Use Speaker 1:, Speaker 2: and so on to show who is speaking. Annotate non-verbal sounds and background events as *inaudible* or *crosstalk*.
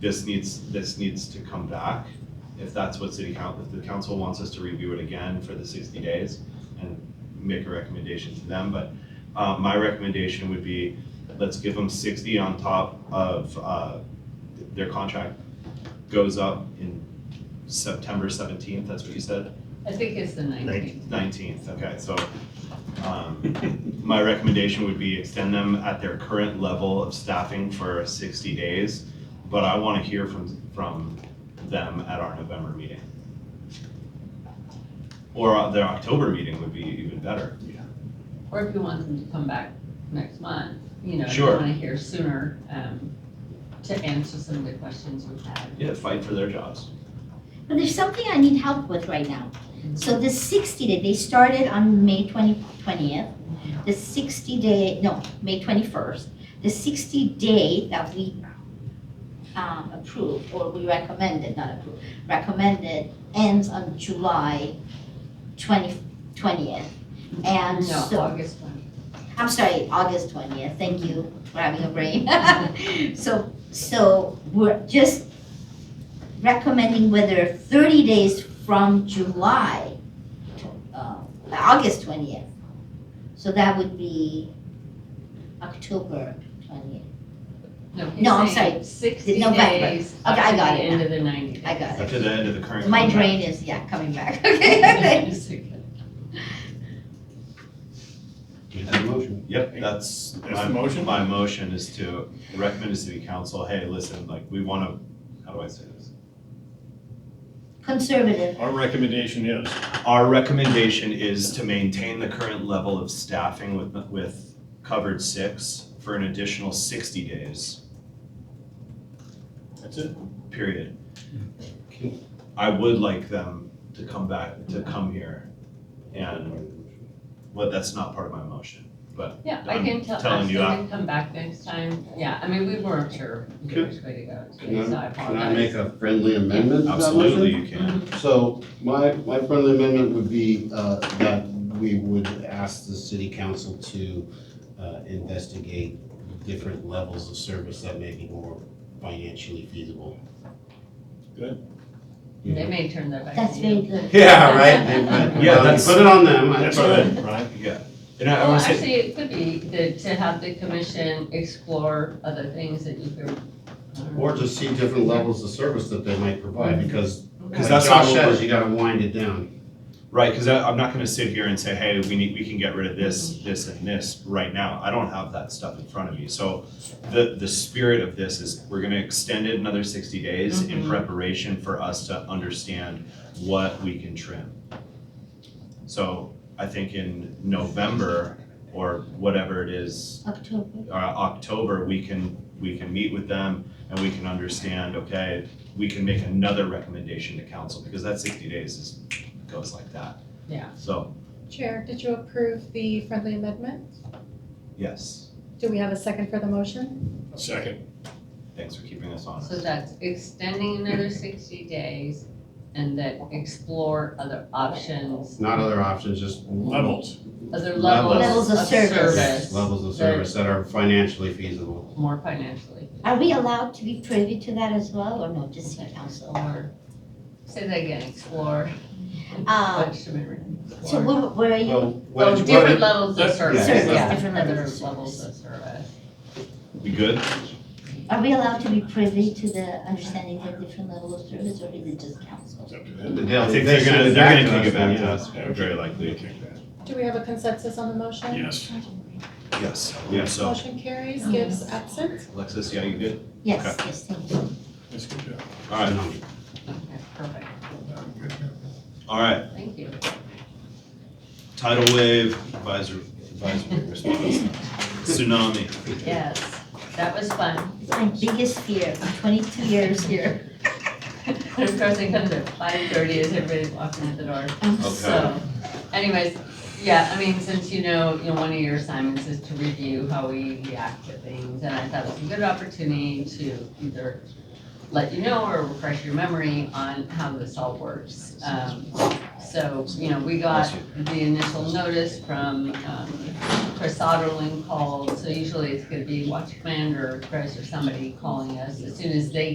Speaker 1: this needs, this needs to come back. If that's what city coun, if the council wants us to review it again for the sixty days and make a recommendation to them, but uh, my recommendation would be, let's give them sixty on top of, uh, th- their contract goes up in September seventeenth, that's what you said?
Speaker 2: I think it's the nineteenth.
Speaker 1: Nineteenth, okay, so, um, my recommendation would be extend them at their current level of staffing for sixty days, but I wanna hear from, from them at our November meeting. Or uh, their October meeting would be even better.
Speaker 2: Or if you want them to come back next month, you know, if you
Speaker 1: Sure.
Speaker 2: want to hear sooner, um, to answer some of the questions we've had.
Speaker 1: Yeah, fight for their jobs.
Speaker 3: But there's something I need help with right now. So the sixty day, they started on May twenty, twentieth. The sixty day, no, May twenty-first. The sixty day that we um, approved, or we recommended, not approved, recommended ends on July twenty, twentieth.
Speaker 2: No,
Speaker 3: And so,
Speaker 2: August one.
Speaker 3: I'm sorry, August twentieth, thank you for having a brain. *laughs* So, so we're just recommending whether thirty days from July, uh, August twentieth. So that would be October twentieth,
Speaker 2: No,
Speaker 3: No, I'm
Speaker 2: he's saying sixty
Speaker 3: November.
Speaker 2: days
Speaker 3: Okay,
Speaker 2: up
Speaker 3: I
Speaker 2: to the
Speaker 3: got it
Speaker 2: end of the ninety days.
Speaker 3: I got it.
Speaker 1: To the end of the current
Speaker 3: My
Speaker 1: contract.
Speaker 3: brain is, yeah, coming back, *laughs* okay,
Speaker 4: *laughs*
Speaker 3: okay.
Speaker 2: It's okay.
Speaker 5: motion.
Speaker 1: Yep, that's.
Speaker 5: That's
Speaker 1: my-
Speaker 5: the motion?
Speaker 1: My motion is to recommend to city council, hey, listen, like, we wanna, how do I say this?
Speaker 3: Conservative,
Speaker 5: Our recommendation is,
Speaker 1: Our recommendation is to maintain the current level of staffing with, with covered six for an additional sixty days,
Speaker 5: that's it.
Speaker 1: period. I would like them to come back, to come here and, well, that's not part of my motion.
Speaker 2: *laughs* Yeah, I
Speaker 3: *laughs*
Speaker 1: I'm
Speaker 2: can tell,
Speaker 1: telling
Speaker 2: ask
Speaker 1: you,
Speaker 2: them to come back next time. Yeah, I mean, we weren't sure
Speaker 1: Okay.
Speaker 2: which way to go, so
Speaker 4: Can I-
Speaker 2: I
Speaker 4: Can I
Speaker 2: apologize. Mm-hmm.
Speaker 4: make a friendly amendment to that motion?
Speaker 1: Absolutely, you can.
Speaker 4: So my, my friendly amendment would be uh, that we would ask the city council to uh, investigate different levels of service that may be more financially feasible.
Speaker 5: Good.
Speaker 2: They may turn their back.
Speaker 3: that's
Speaker 2: to
Speaker 3: very
Speaker 2: you.
Speaker 3: good.
Speaker 4: Yeah,
Speaker 1: Yeah,
Speaker 4: right? Yeah,
Speaker 1: that's-
Speaker 4: put it on them. I-
Speaker 5: That's good, Brian.
Speaker 1: Yeah, and I I
Speaker 2: Well,
Speaker 1: wanna say,
Speaker 2: actually, it could be that to have the commission explore other things that you could. I don't know.
Speaker 4: Or just see different levels of service that they might provide, because
Speaker 1: because
Speaker 2: um,
Speaker 4: like
Speaker 1: that's not
Speaker 4: Josh
Speaker 1: what
Speaker 4: says,
Speaker 1: we're,
Speaker 4: you gotta wind it down.
Speaker 1: right, because I, I'm not gonna sit here and say, hey, we need, we can get rid of this, this, and this right now. I don't have that stuff in front of me, so the, the spirit of this is we're gonna extend it another sixty days in
Speaker 2: Mhm.
Speaker 1: preparation for us to understand what we can trim. So I think in November or whatever it is,
Speaker 3: October,
Speaker 1: uh, October, we can, we can meet with them and we can understand, okay, we can make another recommendation to council because that sixty days is, goes like that.
Speaker 2: Yeah.
Speaker 1: So,
Speaker 6: Chair, did you approve the friendly amendment?
Speaker 1: yes,
Speaker 6: Do we have a second for the motion?
Speaker 5: Second.
Speaker 1: thanks for keeping us honest.
Speaker 2: So that's extending another sixty days and then explore other options,
Speaker 4: Not other options, just.
Speaker 5: Levels.
Speaker 2: other
Speaker 4: Levels.
Speaker 2: levels
Speaker 3: Levels
Speaker 2: of
Speaker 3: of service.
Speaker 2: service.
Speaker 4: Levels of
Speaker 2: that
Speaker 4: service that are financially feasible.
Speaker 2: More financially,
Speaker 3: Are we allowed to be privy to that as well, or no, just city council?
Speaker 2: or, say that again, explore.
Speaker 3: Uh,
Speaker 2: What should we re-
Speaker 3: So
Speaker 2: explore?
Speaker 3: where, where are you?
Speaker 4: Well, what
Speaker 2: Oh,
Speaker 4: did you- what
Speaker 2: different
Speaker 4: did-
Speaker 2: levels of
Speaker 5: Yeah.
Speaker 2: service,
Speaker 3: Service,
Speaker 2: yeah,
Speaker 3: different
Speaker 2: other
Speaker 3: levels of
Speaker 2: levels of service.
Speaker 1: We good?
Speaker 3: Are we allowed to be privy to the understanding of different level of service, or is it just council?
Speaker 5: It's up to them.
Speaker 1: I
Speaker 4: They'll-
Speaker 1: think they're gonna, they're gonna kick it back to
Speaker 4: yeah.
Speaker 1: us, very likely.
Speaker 6: Do we have a consensus on the motion?
Speaker 5: Yes.
Speaker 1: Yes. Yeah, so,
Speaker 6: Motion carries, gives absent.
Speaker 1: Alexis, yeah, you good?
Speaker 3: Yes,
Speaker 1: Okay.
Speaker 3: yes, thank you.
Speaker 5: That's good job.
Speaker 1: All right,
Speaker 2: Okay, perfect,
Speaker 1: all right,
Speaker 2: thank you.
Speaker 1: tidal wave advisory, advisory
Speaker 2: *laughs*
Speaker 1: response, tsunami.
Speaker 2: Yes, that was fun.
Speaker 3: It's my biggest fear, for twenty-two years here.
Speaker 2: And of course, it comes at five thirty as everybody's walking out the door.
Speaker 3: I'm
Speaker 1: Okay.
Speaker 2: So anyways, yeah, I mean, since you know, you know, one of your assignments is to review how we react to things, and I thought it was a good opportunity to either let you know or refresh your memory on how this all works. Um, so, you know, we got the initial notice from, um, Chris Otterlin called, so usually it's gonna be Watch Commander, Chris or somebody calling us as soon as they